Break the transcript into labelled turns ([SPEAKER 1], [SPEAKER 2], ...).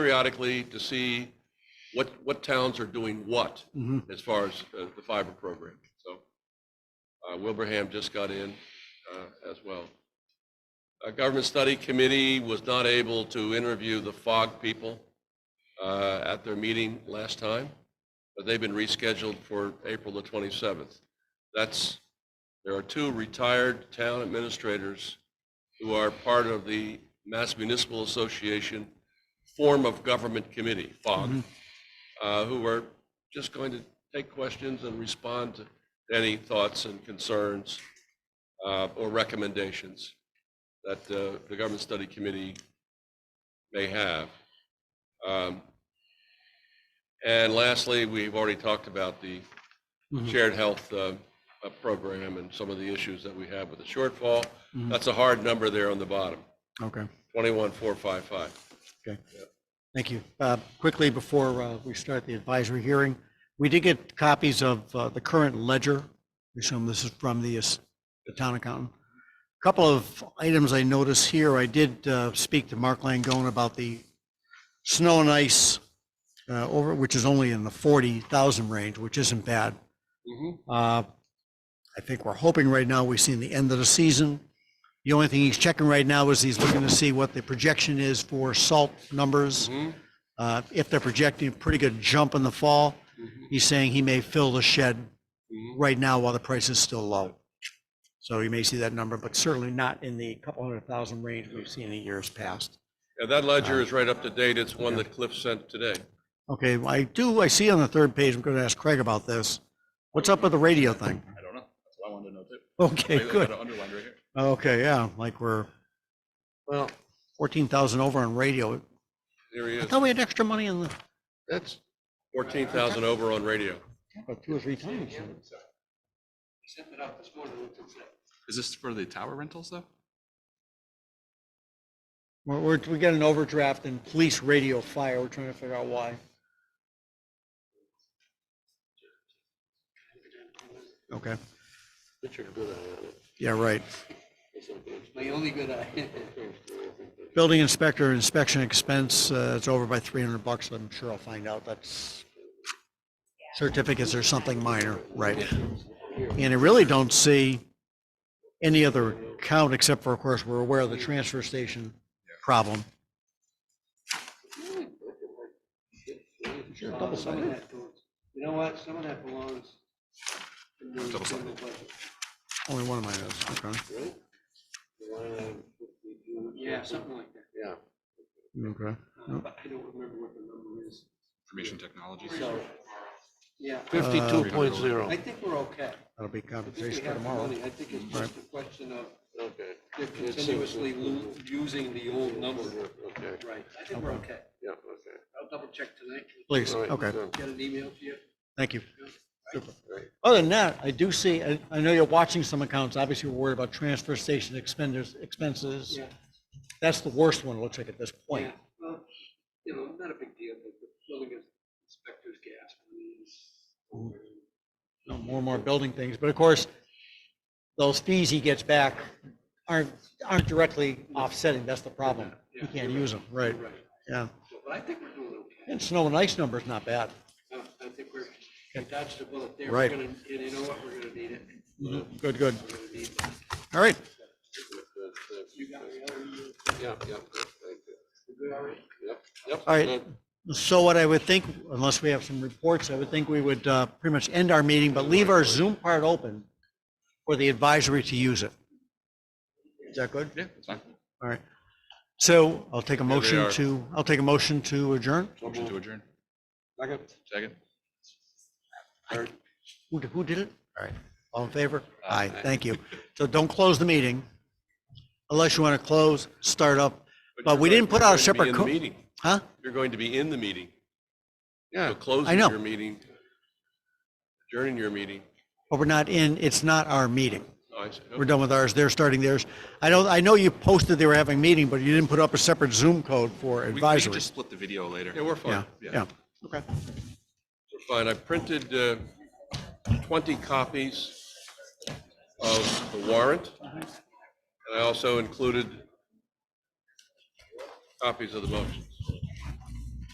[SPEAKER 1] periodically to see what, what towns are doing what
[SPEAKER 2] Mhm.
[SPEAKER 1] as far as uh, the fiber program. So uh, Wilbraham just got in uh, as well. A government study committee was not able to interview the FOG people uh, at their meeting last time, but they've been rescheduled for April the 27th. That's, there are two retired town administrators who are part of the Mass Municipal Association form of government committee, FOG, uh, who are just going to take questions and respond to any thoughts and concerns uh, or recommendations that uh, the Government Study Committee may have. Um, And lastly, we've already talked about the
[SPEAKER 2] Mhm.
[SPEAKER 1] shared health uh, uh, program and some of the issues that we have with the shortfall.
[SPEAKER 2] Mhm.
[SPEAKER 1] That's a hard number there on the bottom,
[SPEAKER 2] Okay,
[SPEAKER 1] 21455.
[SPEAKER 2] okay. Thank you. Uh, Quickly, before uh, we start the advisory hearing, we did get copies of uh, the current ledger. We Assume this is from the uh, s- the town accountant. Couple of items I notice here, I did uh, speak to Mark Langone about the snow and ice uh, over, which is only in the 40,000 range, which isn't bad. Uh, I think we're hoping right now we've seen the end of the season. The only thing he's checking right now is he's looking to see what the projection is for salt numbers.
[SPEAKER 1] Mhm.
[SPEAKER 2] Uh, If they're projecting a pretty good jump in the fall,
[SPEAKER 1] Mhm.
[SPEAKER 2] he's saying he may fill the shed
[SPEAKER 1] Mhm.
[SPEAKER 2] right now while the price is still low. So you may see that number, but certainly not in the couple hundred thousand range we've seen in years past.
[SPEAKER 1] Yeah, that ledger is right up to date. It's one that Cliff sent today.
[SPEAKER 2] Okay, I do, I see on the third page, I'm going to ask Craig about this. What's up with the radio thing?
[SPEAKER 3] I don't know. That's what I wanted to know too.
[SPEAKER 2] Okay,
[SPEAKER 3] I- I
[SPEAKER 2] good.
[SPEAKER 3] got it underlined right here.
[SPEAKER 2] Okay, yeah, like we're, well, fourteen thousand over on radio.
[SPEAKER 1] Here he
[SPEAKER 2] I
[SPEAKER 1] is.
[SPEAKER 2] thought we had extra money in the,
[SPEAKER 1] That's fourteen thousand over on radio.
[SPEAKER 2] about two or three times.
[SPEAKER 3] Is this for the tower rentals though?
[SPEAKER 2] We're, we're, we got an overdraft in police radio fire. We're trying to figure out why. Okay,
[SPEAKER 4] Richard Good Eye on it.
[SPEAKER 2] yeah, right.
[SPEAKER 4] It's a- it's My only good eye.
[SPEAKER 2] Building inspector inspection expense, uh, it's over by three hundred bucks. I'm sure I'll find out. That's certificates or something minor, right? And I really don't see any other account except for, of course, we're aware of the transfer station problem. Sure, double
[SPEAKER 4] Some of
[SPEAKER 2] sided.
[SPEAKER 4] that goes- You know what, some of that belongs in the
[SPEAKER 3] Double sided.
[SPEAKER 4] general budget,
[SPEAKER 2] Only one of mine is, okay.
[SPEAKER 4] uh, yeah, something like that,
[SPEAKER 2] Okay.
[SPEAKER 4] Uh, but I don't remember what the number is,
[SPEAKER 3] Information technologies.
[SPEAKER 4] so, yeah,
[SPEAKER 2] Fifty-two.
[SPEAKER 3] point zero.
[SPEAKER 4] I think we're okay.
[SPEAKER 2] Uh, That'll be
[SPEAKER 4] I think we
[SPEAKER 2] compensation for
[SPEAKER 4] have the
[SPEAKER 2] tomorrow.
[SPEAKER 4] money, I think it's just a question of
[SPEAKER 1] Okay,
[SPEAKER 4] they're continuously lo- using the old number, right, I think we're okay,
[SPEAKER 1] yeah, okay.
[SPEAKER 4] I'll double check tonight,
[SPEAKER 2] Please, okay,
[SPEAKER 4] get an email to you.
[SPEAKER 2] thank you. Super.
[SPEAKER 1] Great.
[SPEAKER 2] Other than that, I do see, I, I know you're watching some accounts, obviously we're worried about transfer station expenders, expenses.
[SPEAKER 4] Yeah.
[SPEAKER 2] That's the worst one, it looks like at this point.
[SPEAKER 4] Yeah, well, You know, not a big deal, but the building inspector's gas fees.
[SPEAKER 2] Mm. you know, more and more building things, but of course, those fees he gets back aren't, aren't directly offsetting, that's the problem. He can't use them, right,
[SPEAKER 4] Right,
[SPEAKER 2] yeah.
[SPEAKER 4] so, but I think we're doing okay.
[SPEAKER 2] And snow and ice number's not bad.
[SPEAKER 4] No, I think we're, we dodged a bullet there.
[SPEAKER 2] Right.
[SPEAKER 4] We're gonna- And you know what, we're gonna need it.
[SPEAKER 2] Good, good,
[SPEAKER 4] We're gonna need it.
[SPEAKER 2] all right.
[SPEAKER 4] You got the other, you-
[SPEAKER 1] Yeah, yeah,
[SPEAKER 4] you good all right?
[SPEAKER 1] yep, yep.
[SPEAKER 2] All right, so what I would think, unless we have some reports, I would think we would uh, pretty much end our meeting, but leave our Zoom part open for the advisory to use it. Is that good?
[SPEAKER 3] Yeah, that's fine.
[SPEAKER 2] All right. So I'll take a
[SPEAKER 1] they
[SPEAKER 2] motion
[SPEAKER 1] are.
[SPEAKER 2] to, I'll take a motion to adjourn.
[SPEAKER 3] Motion to adjourn. Second.
[SPEAKER 2] Who, d- who did it? All right, all in favor? Aye, thank you. So don't close the meeting unless you want to close, start up, but we didn't put out a separate. co- Huh?
[SPEAKER 1] You're going to be in the meeting.
[SPEAKER 3] Yeah.
[SPEAKER 1] So closing
[SPEAKER 2] I know.
[SPEAKER 1] your meeting, adjourning your meeting.
[SPEAKER 2] But we're not in, it's not our meeting.
[SPEAKER 1] Oh, I see.
[SPEAKER 2] We're done with ours. They're starting theirs. I don't, I know you posted they were having a meeting, but you didn't put up a separate Zoom code for
[SPEAKER 3] We- We can
[SPEAKER 2] advisory.
[SPEAKER 3] just split the video later.
[SPEAKER 1] Yeah, we're
[SPEAKER 2] Yeah,
[SPEAKER 1] fine.
[SPEAKER 2] yeah. Okay.
[SPEAKER 1] We're fine. I printed uh, twenty copies of the warrant. And I also included copies of the motion.